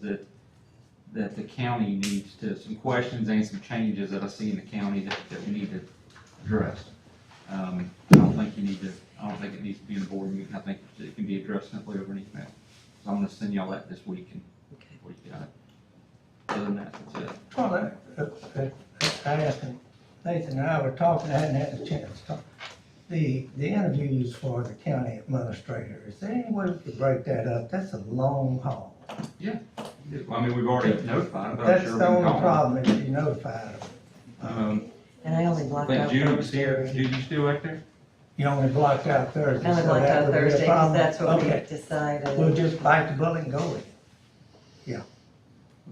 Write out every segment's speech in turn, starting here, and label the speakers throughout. Speaker 1: that, that the county needs to, some questions and some changes that I see in the county that, that we need to address. Um, I don't think you need to, I don't think it needs to be in a board meeting, I think it can be addressed simply over an email. So I'm gonna send y'all that this week and
Speaker 2: Okay.
Speaker 1: we got it. Other than that, that's it.
Speaker 3: Well, that, that- that- I asked him, Nathan and I were talking, I hadn't had a chance to talk. The, the interviews for the county administrator, is there any way we could break that up? That's a long haul.
Speaker 1: I mean, we've already notified, but I'm
Speaker 3: That's
Speaker 1: sure we
Speaker 3: the
Speaker 1: can
Speaker 3: only
Speaker 1: call.
Speaker 3: problem, is you notified them.
Speaker 1: Um,
Speaker 2: And I only blocked
Speaker 1: I think
Speaker 2: out
Speaker 1: Judy was here,
Speaker 2: Thursday.
Speaker 1: Judy, you still out there?
Speaker 3: You only blocked out Thursday,
Speaker 2: I only
Speaker 3: so
Speaker 2: blocked
Speaker 3: that
Speaker 2: out
Speaker 3: would be
Speaker 2: Thursday
Speaker 3: a
Speaker 2: because
Speaker 3: problem.
Speaker 2: that's what we
Speaker 3: Okay, We'll
Speaker 2: decided.
Speaker 3: just bite the bullet and go with it. Yeah.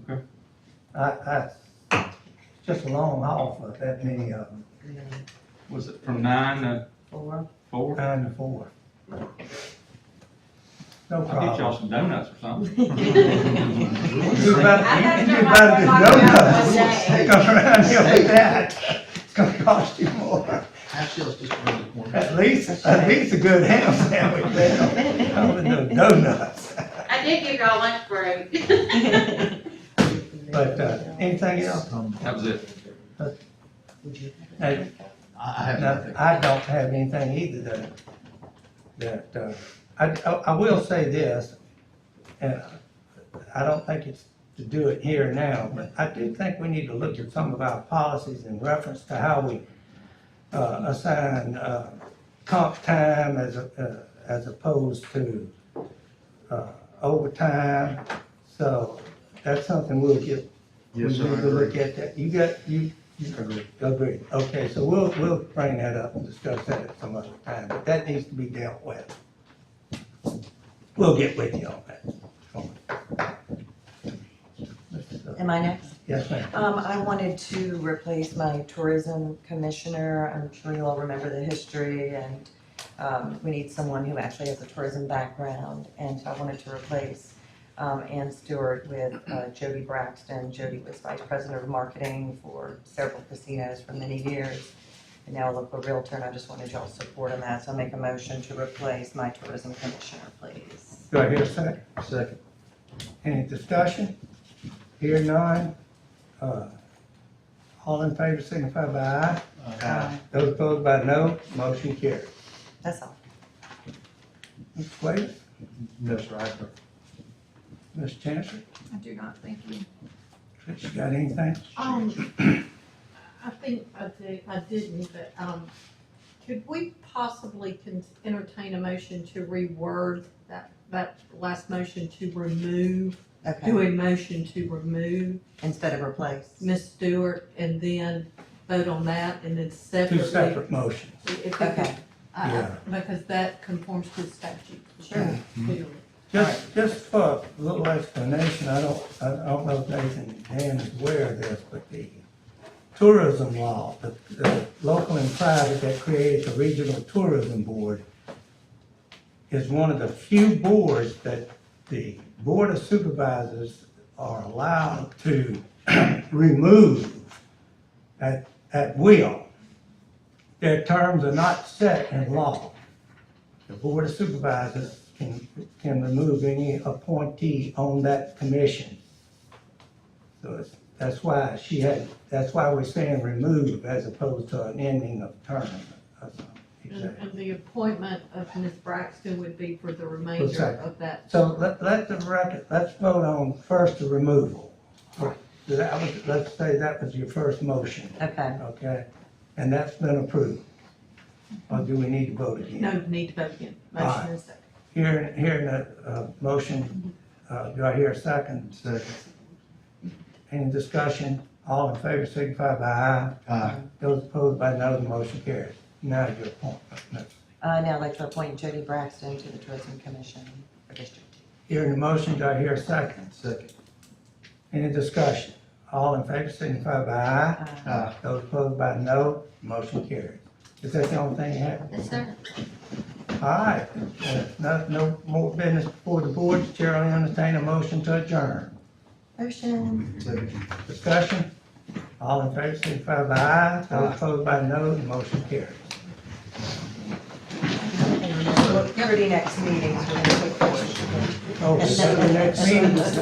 Speaker 1: Okay.
Speaker 3: I, I, it's just a long haul for that many of them,
Speaker 2: Yeah,
Speaker 1: Was it from nine to
Speaker 2: Four.
Speaker 1: four?
Speaker 3: nine to four. No
Speaker 1: I'll get
Speaker 3: problem.
Speaker 1: y'all some donuts or something.
Speaker 3: You better, you better do donuts. They gonna run you with that. It's gonna cost you more.
Speaker 4: Half shell's just around the corner.
Speaker 3: At least, at least a good ham sandwich there. I would do donuts.
Speaker 5: I did give y'all lunch break.
Speaker 3: But, uh, anything else?
Speaker 1: That was it.
Speaker 3: Hey,
Speaker 4: I I have
Speaker 3: No,
Speaker 4: nothing.
Speaker 3: I don't have anything either that, that, uh, I, I- I will say this, and I don't think it's to do it here and now, but I do think we need to look at some of our policies in reference to how we, uh, assign, uh, comp time as, a- uh, as opposed to, uh, overtime. So that's something we'll get, we need
Speaker 4: Yes, sir, I
Speaker 3: to look
Speaker 4: agree.
Speaker 3: at that. You got, you, you
Speaker 4: I agree.
Speaker 3: Agreed, okay, so we'll, we'll bring that up and discuss that at some other time, but that needs to be dealt with. We'll get with you on that.
Speaker 2: Am I next?
Speaker 3: Yes, ma'am.
Speaker 2: Um, I wanted to replace my tourism commissioner. I'm sure you all remember the history and, um, we need someone who actually has a tourism background. And so I wanted to replace, um, Ann Stewart with, uh, Jody Braxton. Jody was vice president of marketing for several casinos for many years. And now a local realtor, and I just wanted y'all's support on that. So I make a motion to replace my tourism commissioner, please.
Speaker 3: Do I hear a second?
Speaker 4: Second.
Speaker 3: Any discussion? Here none, uh, all in favor signify by aye.
Speaker 4: Uh,
Speaker 3: Those opposed by no, motion carries.
Speaker 2: That's all.
Speaker 3: Ms. Wade,
Speaker 4: No, sir, I have nothing.
Speaker 3: Ms. Chancellor,
Speaker 6: I do not, thank you.
Speaker 3: Trish, you got anything?
Speaker 6: Um, I think I did, I didn't, but, um, could we possibly con- entertain a motion to reword that, that last motion to remove, do
Speaker 2: Okay.
Speaker 6: a motion to remove
Speaker 2: Instead of replace.
Speaker 6: Ms. Stewart and then vote on that and then
Speaker 3: Two
Speaker 6: separately?
Speaker 3: separate motions.
Speaker 6: If we could,
Speaker 2: Okay,
Speaker 6: I- I-
Speaker 3: Yeah. Mm-hmm.
Speaker 6: Because that conforms to statute.
Speaker 2: sure.
Speaker 6: Clearly.
Speaker 3: Just, just for a little explanation, I don't, I don't know if Nathan and Dan is aware of this, but the tourism law, the, the local and private that created the Regional Tourism Board is one of the few boards that the Board of Supervisors are allowed to remove at, at will. Their terms are not set in law. The Board of Supervisors can, can remove any appointee on that commission. So it's- that's why she had, that's why we're saying remove as opposed to an ending of term. or something.
Speaker 6: And
Speaker 3: Exactly.
Speaker 6: and the appointment of Ms. Braxton would be for the remainder
Speaker 3: second.
Speaker 6: of that
Speaker 3: So let, let the record, let's vote on first the removal. That was, let's say that was your first motion,
Speaker 2: Okay,
Speaker 3: okay? And that's been approved. Or do we need to vote again?
Speaker 6: No need to vote again. Motion is second.
Speaker 3: Here, here in the, uh, motion, uh, do I hear a second?
Speaker 4: Second.
Speaker 3: Any discussion? All in favor signify by aye.
Speaker 4: Aye.
Speaker 3: Those opposed by no, the motion carries. Now your appointment. No.
Speaker 2: uh, now I'd like to appoint Jody Braxton to the Tourism Commission for District Two.
Speaker 3: Hearing the motion, do I hear a second?
Speaker 4: Second.
Speaker 3: Any discussion? All in favor signify by aye.
Speaker 2: Uh,
Speaker 4: Aye.
Speaker 3: Those opposed by no, motion carries. Is that the only thing you have?
Speaker 5: Yes, sir.
Speaker 3: All right, no, no more business before the board. The Chair will entertain a motion to adjourn.
Speaker 2: Motion,
Speaker 4: Second.
Speaker 3: Discussion? All in favor signify by aye.
Speaker 4: Aye.
Speaker 3: Those opposed by no, the motion carries.
Speaker 2: Liberty next meetings, we're gonna take questions.
Speaker 3: Oh, so the next meeting is